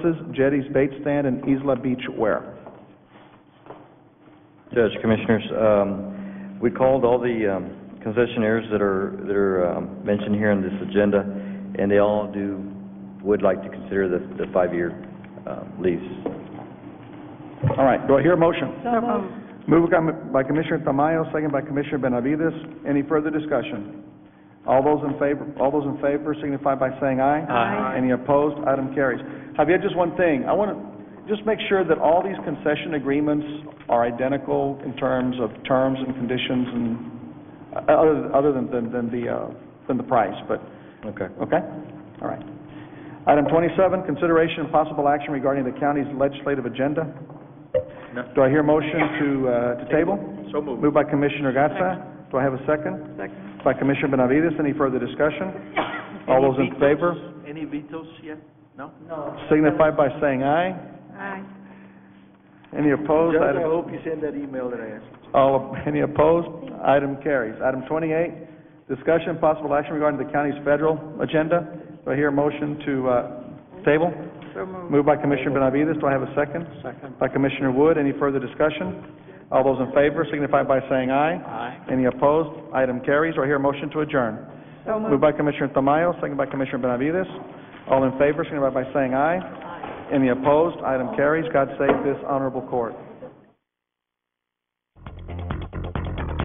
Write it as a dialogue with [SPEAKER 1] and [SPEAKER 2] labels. [SPEAKER 1] jetties, bait stand, and Isla Beach wear.
[SPEAKER 2] Judge, Commissioners, um, we called all the um, concessionaires that are, that are um, mentioned here on this agenda, and they all do, would like to consider the, the five-year um, lease.
[SPEAKER 1] All right, do I hear a motion? Moved by- by Commissioner Tamayo, second by Commissioner Benavides. Any further discussion? All those in favor, all those in favor signify by saying aye.
[SPEAKER 3] Aye.
[SPEAKER 1] Any opposed? Item carries. Javier, just one thing. I want to just make sure that all these concession agreements are identical in terms of terms and conditions and, uh, other, other than, than, than the, uh, than the price, but,
[SPEAKER 2] Okay.
[SPEAKER 1] okay? All right. Item twenty-seven, consideration and possible action regarding the county's legislative agenda.
[SPEAKER 3] No.
[SPEAKER 1] Do I hear a motion to, uh, to table?
[SPEAKER 3] So moved.
[SPEAKER 1] Moved by Commissioner Gatsa. Do I have a second?
[SPEAKER 4] Second.
[SPEAKER 1] By Commissioner Benavides. Any further discussion? All those in favor
[SPEAKER 3] Any vetoes yet? No?
[SPEAKER 1] signify by saying aye.
[SPEAKER 4] Aye.
[SPEAKER 1] Any opposed?
[SPEAKER 3] Judge, I
[SPEAKER 1] Item-
[SPEAKER 3] hope you send that email that I asked.
[SPEAKER 1] All, any opposed? Item carries. Item twenty-eight, discussion and possible action regarding the county's federal agenda. Do I hear a motion to, uh, table?
[SPEAKER 4] So moved.
[SPEAKER 1] Moved by Commissioner Benavides, do I have a second? Second. By Commissioner Wood, any further discussion? All those in favor signify by saying aye.
[SPEAKER 3] Aye.
[SPEAKER 1] Any opposed? Item carries, do I hear a motion to adjourn?
[SPEAKER 4] So
[SPEAKER 1] Moved by Commissioner Tamayo, second by Commissioner Benavides. All in favor signify by saying aye. Any opposed? Item carries, God save this honorable court.